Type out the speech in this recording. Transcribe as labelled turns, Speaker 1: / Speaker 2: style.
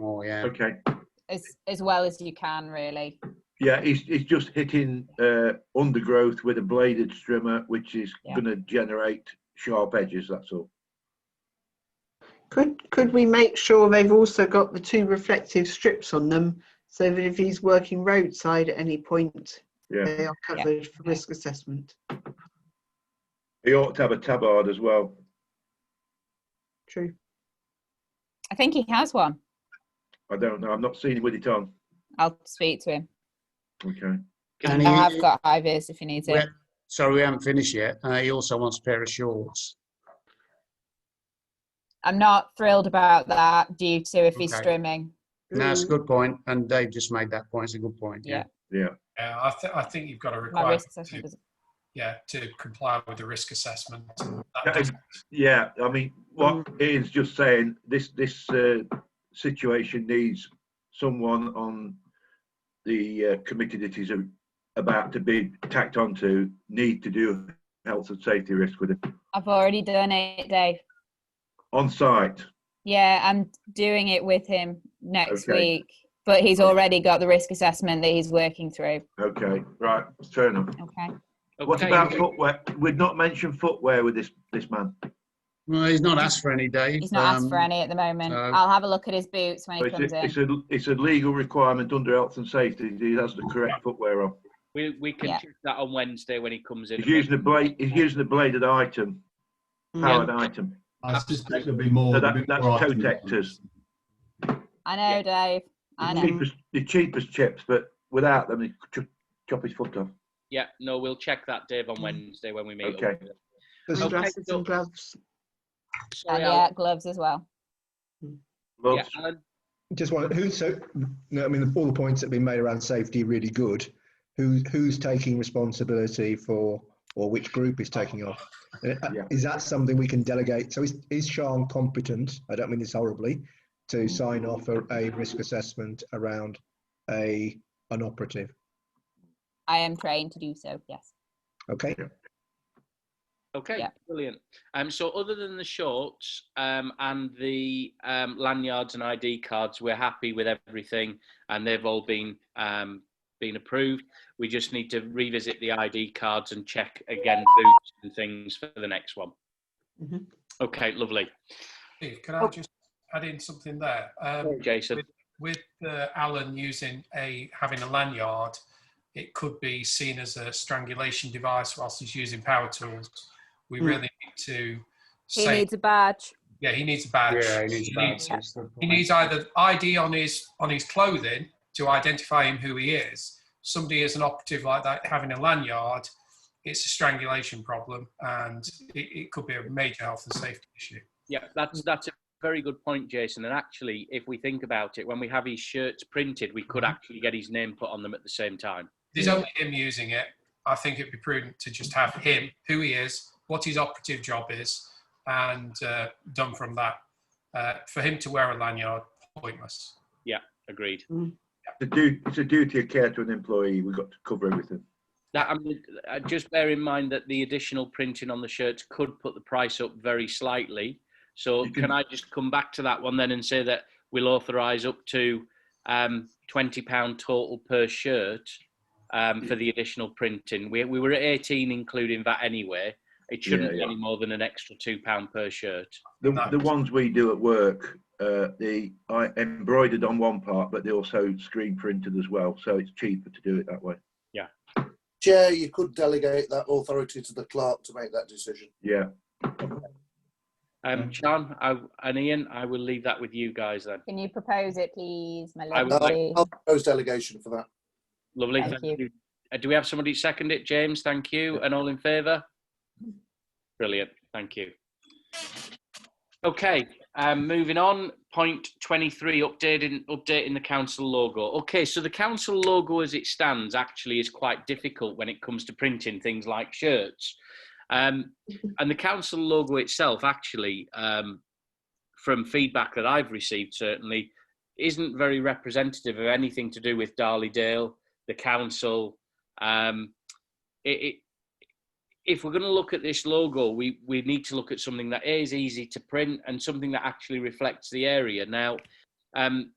Speaker 1: Oh, yeah.
Speaker 2: Okay.
Speaker 3: as as well as you can, really.
Speaker 2: Yeah, he's, he's just hitting uh, undergrowth with a bladed strimmer, which is
Speaker 3: Yeah.
Speaker 2: going to generate sharp edges. That's all.
Speaker 4: Could, could we make sure they've also got the two reflective strips on them so that if he's working roadside at any point,
Speaker 2: Yeah.
Speaker 4: they are covered for risk assessment?
Speaker 2: He ought to have a tabard as well.
Speaker 4: True.
Speaker 3: I think he has one.
Speaker 2: I don't know. I've not seen him with it on.
Speaker 3: I'll speak to him.
Speaker 2: Okay.
Speaker 1: And
Speaker 3: I have
Speaker 1: he-
Speaker 3: got high vis if he needs it.
Speaker 1: Well, Sorry, we haven't finished yet. Uh, he also wants a pair of shorts.
Speaker 3: I'm not thrilled about that due to if he's
Speaker 1: Okay.
Speaker 3: streaming.
Speaker 1: No, that's
Speaker 3: Mm.
Speaker 1: a good point, and Dave just made that point. It's a good point. Yeah.
Speaker 2: Yeah.
Speaker 5: Yeah, I, th- I think you've got a
Speaker 3: My
Speaker 5: requirement
Speaker 3: risk assessment
Speaker 5: to,
Speaker 3: doesn't-
Speaker 5: yeah, to comply with the risk assessment. and that
Speaker 2: Yeah,
Speaker 5: does-
Speaker 2: Yeah. I mean, what Ian's just saying, this this uh, situation needs someone on the uh, committee that is a- about to be tacked onto need to do health and safety risk with it
Speaker 3: I've already done it, Dave.
Speaker 2: on site.
Speaker 3: Yeah, I'm doing it with him next
Speaker 2: Okay.
Speaker 3: week. But he's already got the risk assessment that he's working through.
Speaker 2: Okay. Right. Fair enough.
Speaker 3: Okay.
Speaker 2: What
Speaker 6: Okay,
Speaker 2: about
Speaker 6: we-
Speaker 2: footwear? We've not mentioned footwear with this this man.
Speaker 1: Well, he's not asked for any, Dave.
Speaker 3: He's not asked for
Speaker 1: Um,
Speaker 3: any at the moment.
Speaker 1: so-
Speaker 3: I'll have a look at his boots when
Speaker 2: So
Speaker 3: he
Speaker 2: It's
Speaker 3: comes
Speaker 2: a,
Speaker 3: in.
Speaker 2: it's a it's a legal requirement under health and safety. that He has the correct footwear on.
Speaker 6: We, we can
Speaker 3: Yeah.
Speaker 6: check that on Wednesday when he comes in.
Speaker 2: He's using a blade. He's using a bladed item, powered item.
Speaker 7: I suspect there'll be more.
Speaker 2: So
Speaker 7: there'll
Speaker 2: that-
Speaker 7: be
Speaker 2: that's
Speaker 7: more
Speaker 2: toe
Speaker 7: items.
Speaker 2: detectors.
Speaker 3: I know, Dave.
Speaker 2: The
Speaker 3: I know.
Speaker 2: cheapest, the cheapest chips, but without them, he could chop- chop his foot off.
Speaker 6: Yeah, no, we'll check that, Dave,
Speaker 3: Mm.
Speaker 6: on Wednesday when we meet. up.
Speaker 2: Okay.
Speaker 4: There's
Speaker 6: Okay,
Speaker 4: dresses
Speaker 6: so-
Speaker 4: and gloves.
Speaker 3: And
Speaker 6: Sorry,
Speaker 3: yeah, gloves as well.
Speaker 6: Alan.
Speaker 2: Well,
Speaker 6: Yeah, Alan.
Speaker 8: Just one. Who? So, no, I mean, all the points that have been made around safety are really good. Who? Who's taking responsibility for, or which group is taking off? Uh,
Speaker 2: Yeah.
Speaker 8: Is that something we can delegate? So, is is Sean competent? I don't mean this horribly. To sign off a, a risk assessment around a an operative.
Speaker 3: I am trained to do so, yes.
Speaker 8: Okay.
Speaker 6: Okay,
Speaker 3: Yeah.
Speaker 6: brilliant. Um, so other than the shorts um, and the um, lanyards and ID cards, we're happy with everything, and they've all been um, been approved. We just need to revisit the ID cards and check again boots and things for the next one.
Speaker 3: Mm-hmm.
Speaker 4: Mhm.
Speaker 6: Okay, lovely.
Speaker 5: Steve, Can
Speaker 3: Oh.
Speaker 5: I just add in something there? Um,
Speaker 6: Jason,
Speaker 5: with uh, Alan using a having a lanyard, it could be seen as a strangulation device whilst he's using power tools. We
Speaker 4: Hmm.
Speaker 5: really need to
Speaker 3: He
Speaker 5: say,
Speaker 3: needs a badge.
Speaker 5: yeah, he needs a badge.
Speaker 1: Yeah, he needs that. That's the
Speaker 5: he
Speaker 1: point.
Speaker 5: needs either ID on his on his clothing to identify him who he is. Somebody is an operative like that having a lanyard. It's a strangulation problem, and it, it could be a major health and safety issue.
Speaker 6: yeah, that's that's a very good point, Jason. And actually, if we think about it, when we have his shirts printed, we
Speaker 2: Mm-hmm.
Speaker 6: could actually get his name put on them at the same time.
Speaker 5: There's only him using it. I think it'd be prudent to just have him, who he is, what his operative job is, and uh, done from that. Uh, for him to wear a lanyard, pointless.
Speaker 6: Agreed.
Speaker 2: it's a duty, it's a duty of care to an employee. We've got to cover everything.
Speaker 6: That I mean, uh, just bear in mind that the additional printing on the shirts could put the price up very slightly. So
Speaker 2: You
Speaker 6: can
Speaker 2: can-
Speaker 6: I just come back to that one then and say that we'll authorise up to um, twenty pound total per shirt um, for the additional printing. We we were at eighteen including that anyway. It
Speaker 2: Yeah,
Speaker 6: shouldn't be
Speaker 2: yeah.
Speaker 6: any more than an extra two pound per shirt.
Speaker 2: The,
Speaker 5: No.
Speaker 2: the ones we do at work, uh, the I embroidered on one part, but they also screen printed as well, so it's cheaper to do it that way.
Speaker 9: Chair, you could delegate that authority to the clerk to make that decision.
Speaker 2: Yeah.
Speaker 6: Um, John I, and Ian, I will leave that with you guys then.
Speaker 3: Can you propose it, please, my
Speaker 6: I would like-
Speaker 3: lovely?
Speaker 9: I'll propose delegation for that.
Speaker 6: Lovely.
Speaker 3: Thank
Speaker 6: Thank, you. Uh, do we have somebody second it? James, thank you. And all in favour? Brilliant. Thank you. Okay, um, moving on. Point 23, updating, updating the council logo. Okay, so the council logo as it stands actually is quite difficult when it comes to printing things like shirts. Um, and the council logo itself actually, um, from feedback that I've received certainly, isn't very representative of anything to do with Darley Dale, the council. Um, it, it, if we're going to look at this logo, we, we need to look at something that is easy to print and something that actually reflects the area. Now, um,